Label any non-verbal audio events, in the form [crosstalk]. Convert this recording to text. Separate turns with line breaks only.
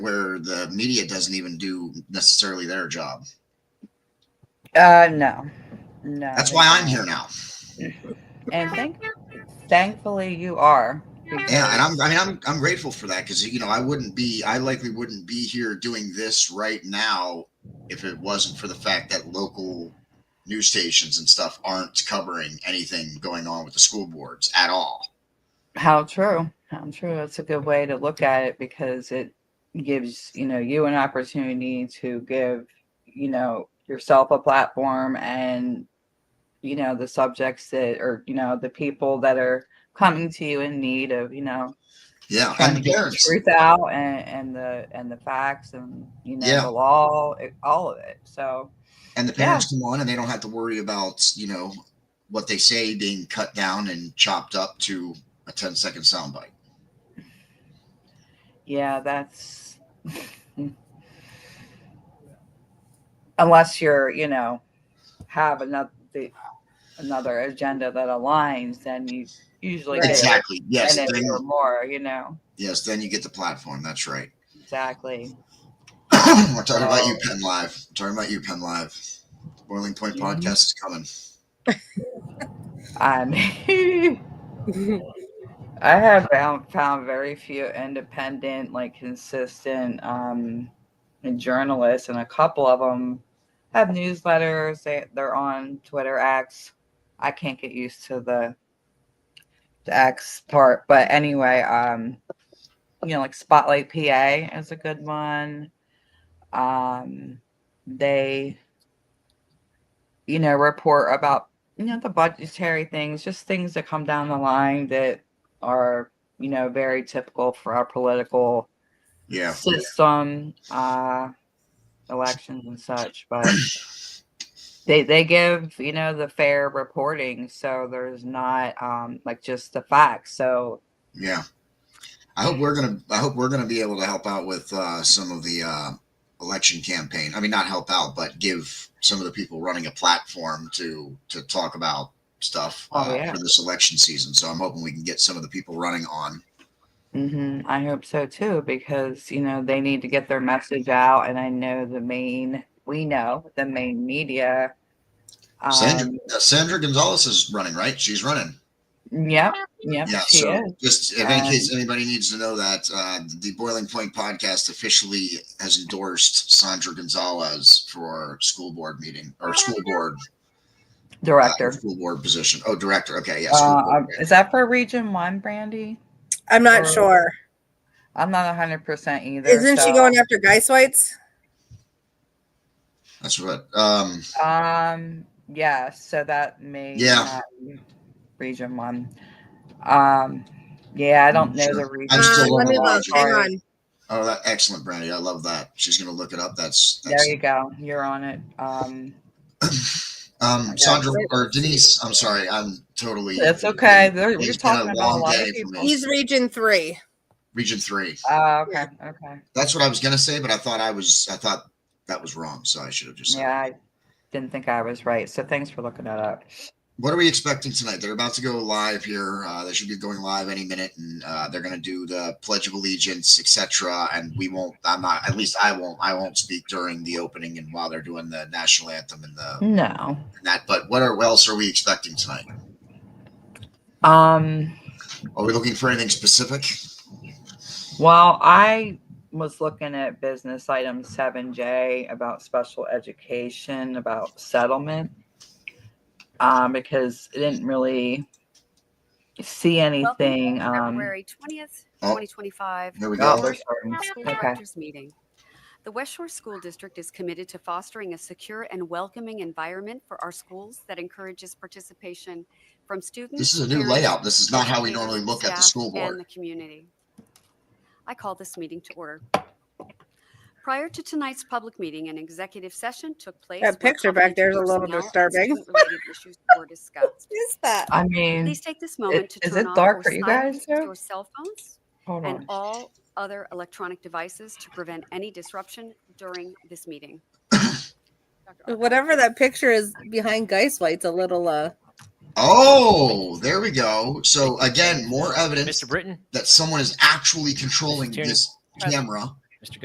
the media doesn't even do necessarily their job.
Uh, no, no.
That's why I'm here now.
And thank, thankfully you are.
Yeah, and I'm I mean I'm I'm grateful for that because you know I wouldn't be I likely wouldn't be here doing this right now if it wasn't for the fact that local news stations and stuff aren't covering anything going on with the school boards at all.
How true. How true. That's a good way to look at it because it gives, you know, you an opportunity to give, you know, yourself a platform and, you know, the subjects that or, you know, the people that are coming to you in need of, you know,
Yeah,
trying
and the
to get the
parents.
truth out and, and the and the facts and you know
Yeah.
the law, it, all of it. So
and the parents come on and they don't have to worry about you know what they say being cut down and chopped up to a 10 second soundbite
Yeah, that's unless you're, you know, have another the, another agenda that aligns, then you usually get
exactly yes
a minute
then,
or more, you know.
yes then you get the platform that's right [clears throat]
Exactly.
we're talking about you
Oh.
penn live we're talking about you penn live boiling point
Mhm.
podcast is coming
I mean, [laughs] I have found, found very few independent, like consistent um, journalists, and a couple of them have newsletters. They they're on Twitter X. I can't get used to the the X part, but anyway, um, you know, like Spotlight PA is a good one. Um, they, you know, report about you know the budgetary things, just things that come down the line that are you know very typical for our political
yeah
system, uh, elections and such. But they they give you know the fair reporting, so there's not um like just the facts. So
yeah i hope we're gonna i hope we're gonna be able to help out with uh, some of the uh, election campaign i mean not help out but give some of the people running a platform to to talk about stuff uh,
Oh, yeah.
for this election season so i'm hoping we can get some of the people running on
hmm I hope so too, because you know they need to get their message out, and I know the main we know the main media.
sandra,
Um,
uh, sandra gonzalez is running right she's running
yep, yep,
yeah
she
so
is.
just if in
Um,
case anybody needs to know that uh, the boiling point podcast officially has endorsed sandra gonzalez for school board meeting or school board uh,
Ah, director.
school board position oh director okay yeah school
Uh,
board.
um, is that for Region One, Brandy?
I'm
Or-
not sure.
I'm not hundred percent either.
Isn't she
so,
going after Geiswitz? Whites?
that's what um
Um, yeah. So that may
Yeah.
not be Region One. Um, yeah. I don't know
Sure.
the region.
I'm still
Um, let
on
me
the
look.
logic.
Hang on.
oh that excellent brandy i love that she's gonna look it up that's, that's
There you go. You're on it. Um,
Um, Sandra or Denise, I'm sorry, I'm totally.
that's okay. There,
It's
we're
been
talking about a
long
lot
day
of
for
people.
me.
He's region three.
Region three.
Oh, okay. Okay.
That's what I was gonna say, but I thought I was, I thought that was wrong, so I should have just. said-
Yeah, I didn't think I was right. So thanks for looking that up.
What are we expecting tonight? They're about to go live here. Uh, they should be going live any minute, and uh, they're gonna do the Pledge of Allegiance, etc. And we won't. I'm not. At least I won't. I won't speak during the opening and while they're doing the national anthem and
Mm-hmm.
the
No.
and that. But what are what else are we expecting tonight?
Um.
Are we looking for anything specific?
Well, I was looking at business item seven J about special education, about settlement. Um, because I didn't really see anything.
Welcome to
Um,
February 20th,
Oh.
2025.
Here we
oh,
go.
we're starting.
School
Okay.
Directors Meeting. The West Shore School District is committed to fostering a secure and welcoming environment for our schools that encourages participation from students.
This is a new
parents,
layout. This is not how we
educators,
normally look at the
staff,
school board.
And the community. I call this meeting to order. Prior to tonight's public meeting, an executive session took place.
That
where
picture back there is a little
confidential
disturbing.
personnel and student-related issues were discussed.
Is that?
I mean,
Please take this moment to
is
turn
it
off
dark
or
for you guys
silence
there?
your cell phones
hold
and
on.
all other electronic devices to prevent any disruption during this meeting. Dr. Ogden.
Whatever that picture is behind Geiswitz, a little uh
Oh, there we go. So again, more evidence
Mr. Britton,
that someone is actually controlling
Mr. Tierney.
this camera.